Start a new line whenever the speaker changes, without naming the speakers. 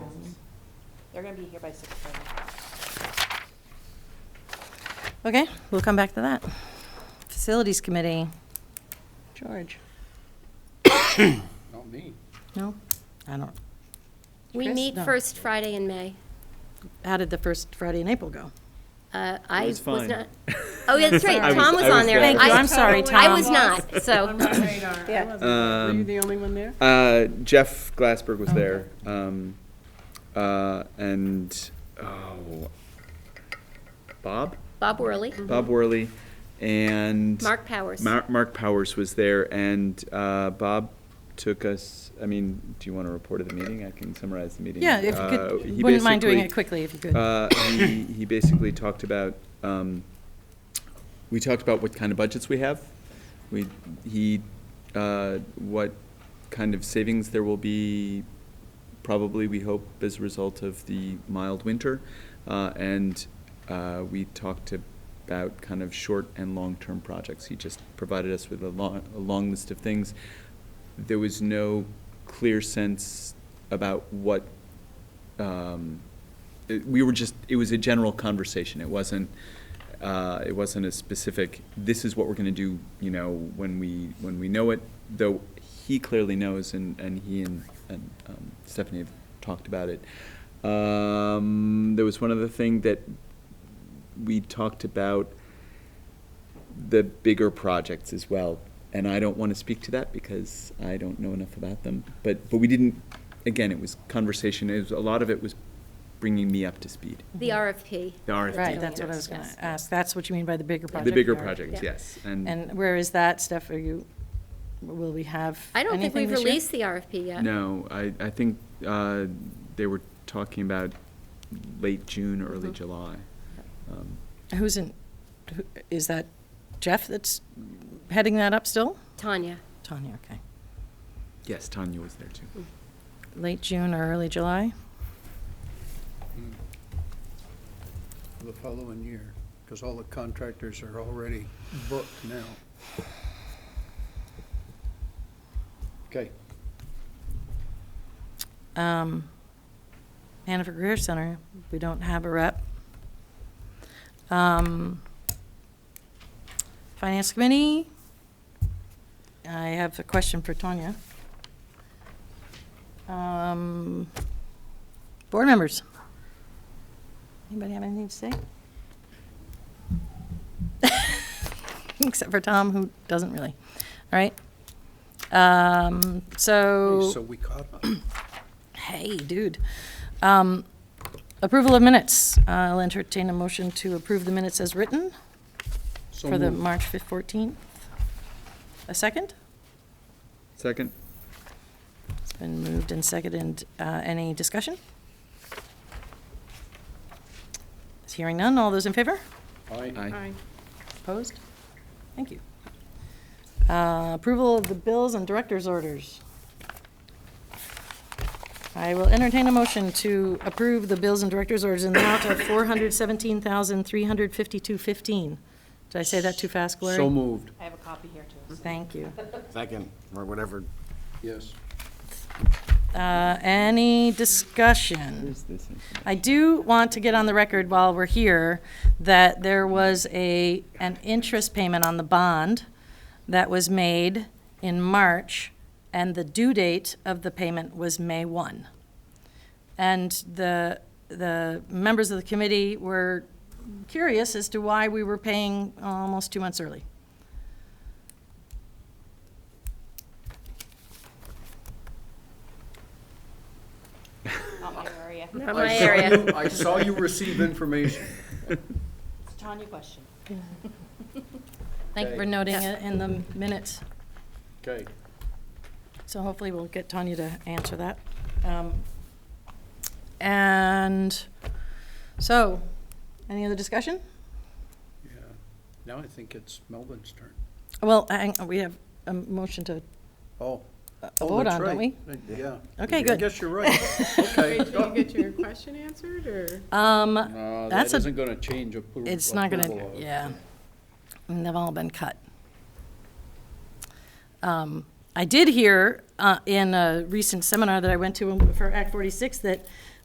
They're gonna be here by six thirty.
Okay, we'll come back to that. Facilities Committee, George?
Not me.
No? I don't.
We
Chris?
meet
No.
first Friday in May.
How did the first Friday in April go?
Uh, I
was
was
fine.
not. Oh, yeah, that's right.
I was-
Tom was
I was
on there.
there. Thank
you,
I-
I'm sorry,
I was
Tom.
not, so.
Were you the only one there? Uh, Jeff Glassberg
Oh,
was there. Um, uh, and, oh, Bob?
Bob Worley,
Mm-hmm.
Bob Worley and.
Mark Powers.
Mar- Mark Powers was there and, uh, Bob took us, I mean, do you want to report of the meeting? I can summarize the meeting.
Yeah, if you
Uh, he
could, wouldn't mind doing
basically-
it quickly if you could.
uh, he, he basically talked about, um, we talked about what kind of budgets we have. We, he, uh, what kind of savings there will be, probably, we hope, as a result of the mild winter. Uh, and, uh, we talked about kind of short and long-term projects. He just provided us with a long, a long list of things. There was no clear sense about what um, it- we were just, it was a general conversation. It wasn't, uh, it wasn't a specific, this is what we're going to do, you know, when we, when we know it, though he clearly knows, and, and he and, and um, Stephanie have talked about it. Um, There was one other thing that we talked about, the bigger projects as well. And I don't want to speak to that because I don't know enough about them. But, but we didn't, again, it was conversation, it was, a lot of it was bringing me up to speed.
the RFP.
The RFP,
Right, that's what I was going
Yes.
to ask. That's what you mean by the bigger project?
The bigger
Eric?
projects,
Yeah.
yes. And
And where is that, Steph? Are you, will we have
I don't think
anything
we've
this year?
released the RFP yet.
no, I, I think uh, they were talking about late June, early July. Um,
Who's in, who- is that Jeff that's heading that up still?
Tanya,
Tanya, okay.
Yes, Tanya was there too.
Late June or early July?
Hmm. The following year, because all the contractors are already booked now. Okay,
Um, Hanover Career Center, we don't have a rep. Um, Finance Committee, I have a question for Tanya. Um, Board members, anybody have anything to say? Except for Tom, who doesn't really. All right. Um,
so we caught up.
Hey, dude. Um, Approval of minutes. I'll entertain a motion to approve the minutes as written
So
for the
moved.
March 5th, 14th. A second?
Second?
It's been moved and seconded. Uh, Any discussion? Hearing none. All those in favor?
Aye.
Aye.
Opposed? Thank you. Uh, Approval of the bills and director's orders. I will entertain a motion to approve the bills and director's orders in the amount of four hundred seventeen thousand three hundred fifty-two fifteen. Did I say that too fast, Gloria?
So moved,
I have a copy here too.
Thank you.
second, or whatever
yes.
Uh, Any discussion?
Where's this? information?
I do want to get on the record while we're here that there was a, an interest payment on the bond that was made in March, and the due date of the payment was May 1. And the, the members of the committee were curious as to why we were paying almost two months early.
Not my area.
not
I
my
saw
area.
you- I saw you receive information.
It's a Tanya question.
Thank you for
Okay.
noting it in the minutes.
Okay,
So hopefully we'll get Tanya to answer that. Um, And so, any other discussion?
yeah. Now I think it's Melvin's turn.
Well, hang- we have a motion to
Oh.
a vote on, don't we?
Yeah.
Okay,
I
good.
guess you're right. Okay.
Did you get your question answered, or?
Um,
No, Oh, that
That's a-
isn't gonna change appro- approval.
It's not gonna,
of-
yeah. And they've all been cut. Um, I did hear uh, in a recent seminar that I went to for Act 46 that